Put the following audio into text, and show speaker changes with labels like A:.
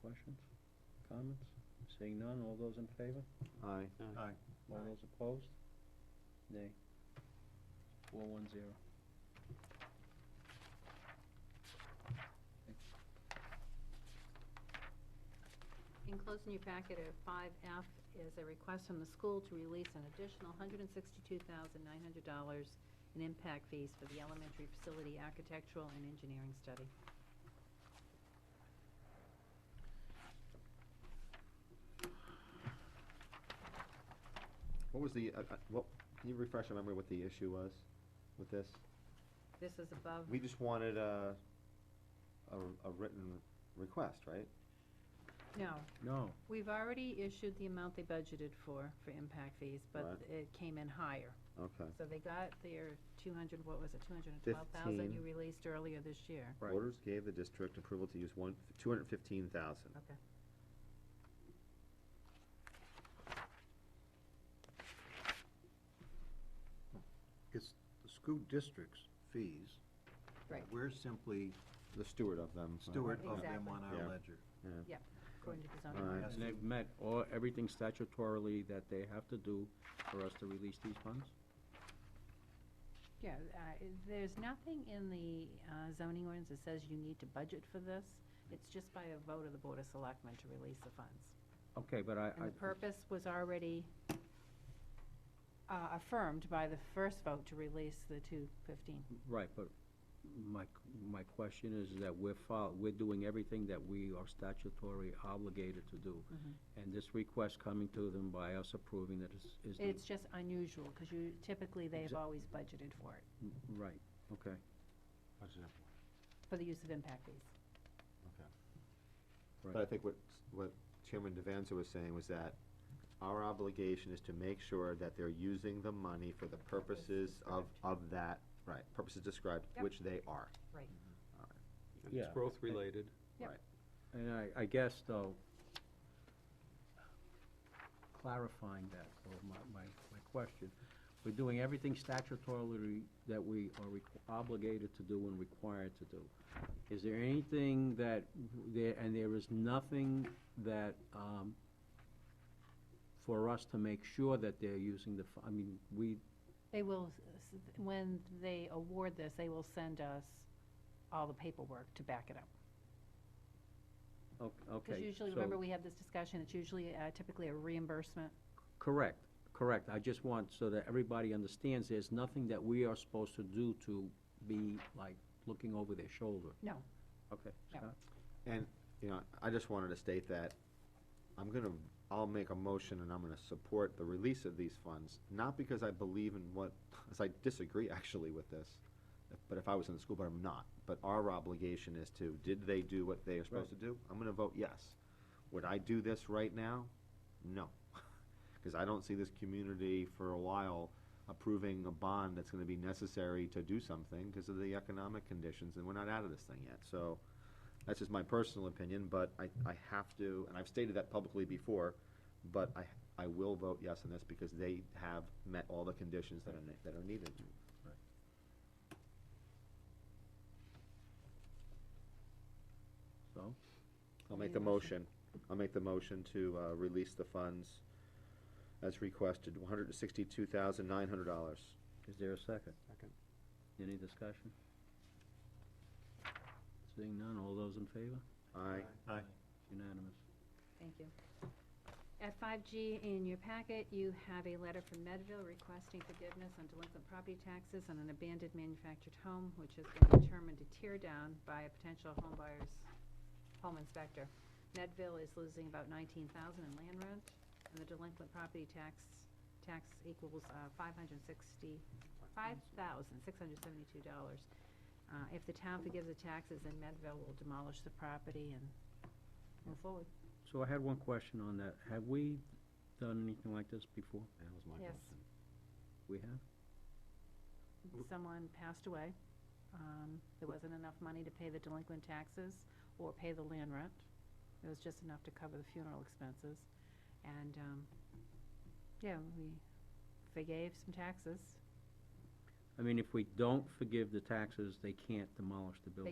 A: Questions, comments? Seeing none, all those in favor?
B: Aye.
C: Aye.
A: All
C: Aye.
A: those opposed? Nay. Four one zero.
D: Enclosed in your packet of 5F is a request from the school to release an additional $162,900 in impact fees for the elementary facility architectural and engineering study.
B: What was the, uh, uh, what, can you refresh my memory what the issue was with this?
D: This is above,
B: We just wanted a, a, a written request, right?
D: no,
A: No.
D: we've already issued the amount they budgeted for, for impact fees, but
B: Right.
D: it came in higher.
B: Okay.
D: So they got their 200, what was it, 212,000 you
B: Fifteen.
D: released earlier this year.
A: Right.
B: Orders gave the district approval to use one, two hundred and fifteen thousand.
D: Okay.
C: It's the school district's fees.
D: Right.
C: We're simply
B: The steward of them. so-
C: steward of them on
B: Yeah.
C: our ledger.
D: According to the zoning.
B: All right.
C: Yes.
A: And they've met all, everything statutorily that they have to do for us to release these funds?
D: Yeah, uh, there's nothing in the uh, zoning ordinance that says you need to budget for this. It's just by a vote of the Board of Selectmen to release the funds.
A: Okay, but I,
D: And the
A: I,
D: purpose was already uh, affirmed by the first vote to release the 215.
A: right, but my, my question is that we're fol, we're doing everything that we are statutory obligated to do.
D: Mhm.
A: And this request coming to them by us approving that is, is the
D: It's just unusual, because you, typically, they've
A: Exa-
D: always budgeted for it,
A: Right, okay.
D: for the use of impact fees.
B: But I think what, what Chairman Devanza was saying was that our obligation is to make sure that they're using the money for the purposes of, of that, right, purposes described,
D: Yep.
B: which they are.
E: And it's
A: Yeah.
E: growth related.
A: And I, I guess though, clarifying that, or my, my, my question, we're doing everything statutorily that we are requ- obligated to do and required to do. Is there anything that, w- there, and there is nothing that, um, for us to make sure that they're using the, fu- I mean, we,
D: They will, s- s- when they award this, they will send us all the paperwork to back it up.
A: o- okay.
D: Because usually,
A: so-
D: remember, we have this discussion, it's usually uh, typically a reimbursement.
A: Correct, correct. I just want, so that everybody understands, there's nothing that we are supposed to do to be like looking over their shoulder.
D: No.
A: Okay,
D: No.
A: Scott?
B: And, you know, I just wanted to state that I'm gonna, I'll make a motion and I'm gonna support the release of these funds, not because I believe in what, as I disagree actually with this, but if I was in the school, but I'm not. But our obligation is to, did they do what they are supposed to do? I'm gonna vote yes. Would I do this right now? No. Cause I don't see this community for a while approving a bond that's gonna be necessary to do something because of the economic conditions and we're not out of this thing yet, so. That's just my personal opinion, but I, I have to, and I've stated that publicly before, but I, I will vote yes on this because they have met all the conditions that are, ne- that are needed.
A: So,
B: I'll
D: Any
B: make the
D: motion?
B: motion, I'll make the motion to, uh, release the funds as requested, one hundred and sixty-two thousand nine hundred dollars.
A: is there a second?
E: Second.
A: Any discussion? Seeing none, all those in favor?
B: Aye.
C: Aye.
A: Unanimous.
D: Thank you. At five G in your packet, you have a letter from Medville requesting forgiveness on delinquent property taxes on an abandoned manufactured home, which has been determined to tear down by a potential home buyer's home inspector. Medville is losing about nineteen thousand in land rent, and the delinquent property tax, tax equals, uh, five hundred sixty, five thousand, six hundred seventy-two dollars. Uh, if the town forgives the taxes, then Medville will demolish the property and move forward.
A: So I had one question on that. Have we done anything like this before?
B: That was my
D: Yes.
A: We have?
D: someone passed away, um, there wasn't enough money to pay the delinquent taxes or pay the land rent. It was just enough to cover the funeral expenses. And, um, yeah, we forgave some taxes.
A: I mean, if we don't forgive the taxes, they can't demolish the building.